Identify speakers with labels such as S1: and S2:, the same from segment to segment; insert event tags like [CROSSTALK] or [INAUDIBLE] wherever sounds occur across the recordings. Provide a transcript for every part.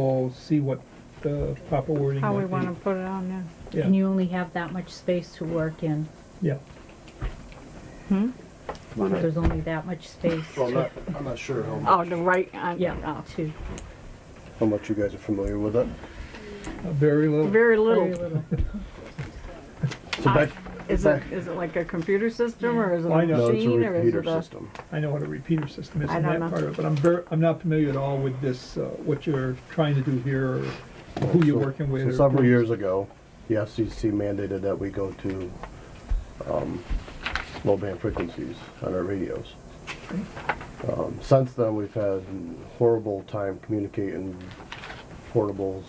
S1: We'll see what the proper wording
S2: How we
S1: might
S2: wanna
S1: be.
S2: put it on there.
S1: Yeah,
S3: And you only have that much space to work in.
S1: yeah.
S2: Hmm?
S3: There's only that much space.
S4: Well, I'm
S3: to-
S4: not, I'm not sure how
S2: Oh,
S4: much,
S2: the right, uh,
S3: Yeah, to,
S4: how much you guys are familiar with it.
S1: Uh, Very
S2: oh,
S1: little,
S2: Very
S3: very
S2: little.
S3: little.
S4: So
S2: I-
S4: back,
S2: Is it,
S4: back-
S2: is it like a computer system or is it a
S1: Why not?
S4: no, it's a
S2: machine or is
S4: repeater
S2: it a?
S4: system.
S1: I know what a repeater system is
S2: I
S1: in
S2: don't
S1: that
S2: know.
S1: part of it, but I'm ver, I'm not familiar at all with this, uh, what you're trying to do here, or who you're working with.
S4: So
S1: or-
S4: several years ago, the FCC mandated that we go to, um, low band frequencies on our radios. Um, since then, we've had horrible time communicating portables,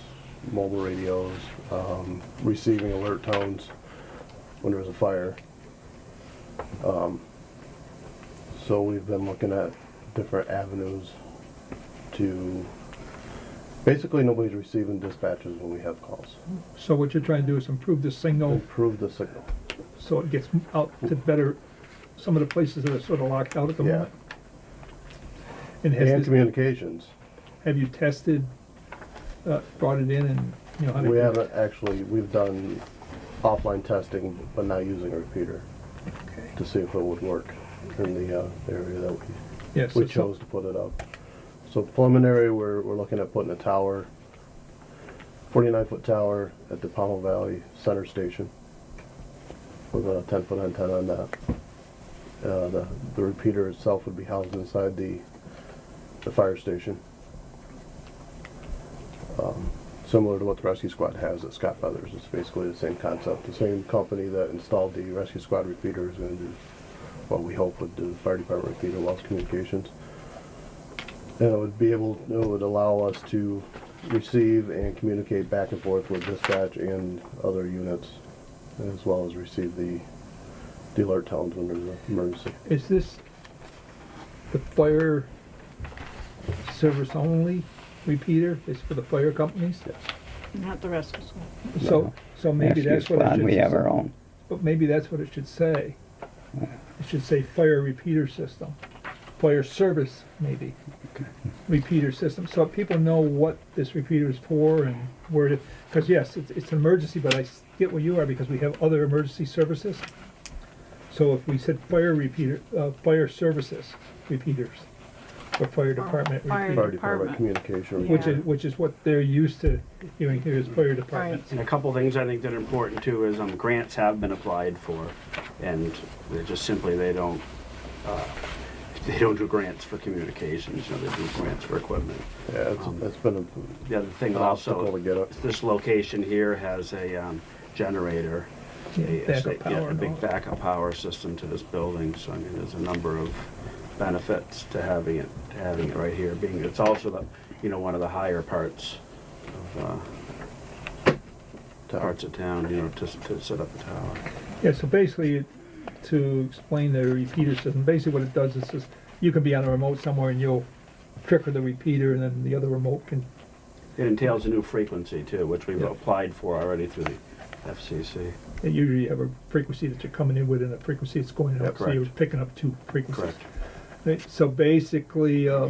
S4: mobile radios, um, receiving alert tones when there's a fire. Um, so we've been looking at different avenues to, basically nobody's receiving dispatches when we have calls.
S1: So what you're trying to do is improve the signal
S4: Improve the signal.
S1: so it gets out to better, some of the places that are sort of locked out at the
S4: Yeah.
S1: moment. And
S4: And
S1: has this,
S4: communications.
S1: have you tested, uh, brought it in and, you know, how to?
S4: We haven't actually, we've done offline testing, but not using a repeater
S1: Okay.
S4: to see if it would work in the uh, area that we,
S1: Yeah, so
S4: we
S1: some-
S4: chose to put it up. So preliminary, we're, we're looking at putting a tower, forty-nine foot tower at the Pommel Valley Center Station with a ten foot antenna on that. Uh, the, the repeater itself would be housed inside the, the fire station. Um, Similar to what the rescue squad has at Scott Brothers, it's basically the same concept. The same company that installed the rescue squad repeater is gonna do what we hope would do the fire department repeater loss communications. And it would be able, it would allow us to receive and communicate back and forth with dispatch and other units, as well as receive the, the alert tones when there's an emergency.
S1: Is this the fire service only repeater? It's for the fire companies?
S2: Not the rest of school.
S1: So, so maybe
S5: Rescue
S1: that's what it
S5: squad,
S1: should.
S5: We have our own.
S1: But maybe that's what it should say. It should say fire repeater system, fire service maybe, repeater system. So people know what this repeater is for and where to, because yes, it's, it's an emergency, but I s- get where you are because we have other emergency services. So if we said fire repeater, uh, fire services repeaters, or fire department
S2: fire
S1: repeater,
S4: Fire department
S2: Department.
S4: communication.
S1: which
S2: Yeah.
S1: is, which is what they're used to hearing here is fire departments.
S6: And a couple things I think that are important too is um, grants have been applied for, and they're just simply, they don't, uh, [LAUGHS] they don't do grants for communications, you know, they do grants for equipment.
S4: Yeah, it's,
S6: Um,
S4: it's been
S6: The other thing
S4: an obstacle to
S6: also,
S4: get up.
S6: this location here has a um, generator. a-
S1: Backup
S6: yeah,
S1: power
S6: A
S1: and all
S6: big
S1: that.
S6: backup power system to this building, so I mean, there's a number of benefits to having it, to having it right here, being, it's also the, you know, one of the higher parts of, uh, parts of town, you know, to, to set up a tower.
S1: Yeah, so basically, it- to explain the repeater system, basically what it does is, is you can be on a remote somewhere and you'll trigger the repeater and then the other remote can,
S6: It entails a new frequency too, which we've
S1: Yeah.
S6: applied for already through the FCC.
S1: it usually have a frequency that you're coming in with and a frequency that's going
S6: Yeah,
S1: out, so you're
S6: correct.
S1: picking up two frequencies.
S6: Correct.
S1: Right, So basically, uh,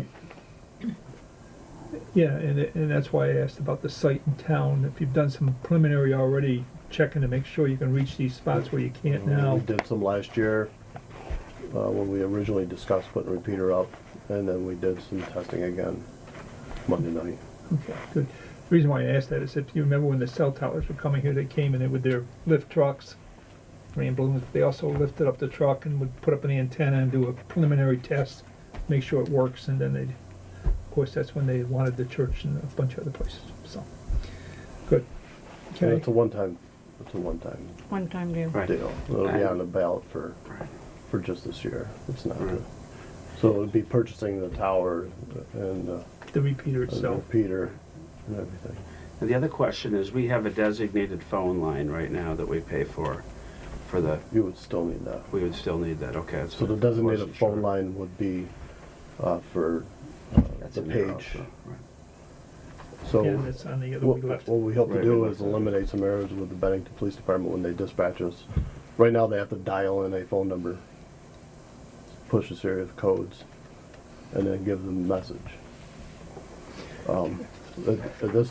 S1: yeah, and, it- and that's why I asked about the site in town, if you've done some preliminary already, checking to make sure you can reach these spots where you can't
S4: Um, We
S1: now.
S4: did some last year, uh, when we originally discussed putting a repeater up, and then we did some testing again Monday night.
S1: Okay, good. The reason why I asked that is if you remember when the cell towers were coming here, they came in with their lift trucks, rain balloons, they also lifted up the truck and would put up an antenna and do a preliminary test, make sure it works, and then they'd, of course, that's when they wanted the church and a bunch of other places, so, good.
S4: So
S1: Okay,
S4: It's a one-time, it's a one-time
S2: One time deal.
S6: Right.
S4: deal. It'll be
S6: Right.
S4: on the ballot for,
S6: Right.
S4: for just this year. It's not,
S6: Right.
S4: so it would be purchasing the tower and uh,
S1: the repeater
S4: the
S1: itself,
S4: repeater and everything.
S6: And the other question is, we have a designated phone line right now that we pay for, for the,
S4: You would still need that.
S6: we would still need that, okay.
S4: So the
S6: I
S4: designated
S6: wasn't sure.
S4: phone line would be uh, for uh,
S6: That's
S4: the
S6: in there
S4: page.
S6: also, right.
S4: So
S1: yeah, that's on the other
S4: What
S1: we left.
S4: what we hope to
S6: Right,
S4: do
S6: we
S4: is
S6: left it.
S4: eliminate some errors with the Bennington Police Department when they dispatch us. Right now, they have to dial in a phone number, push a series of codes, and then give them the message. Um, at, at this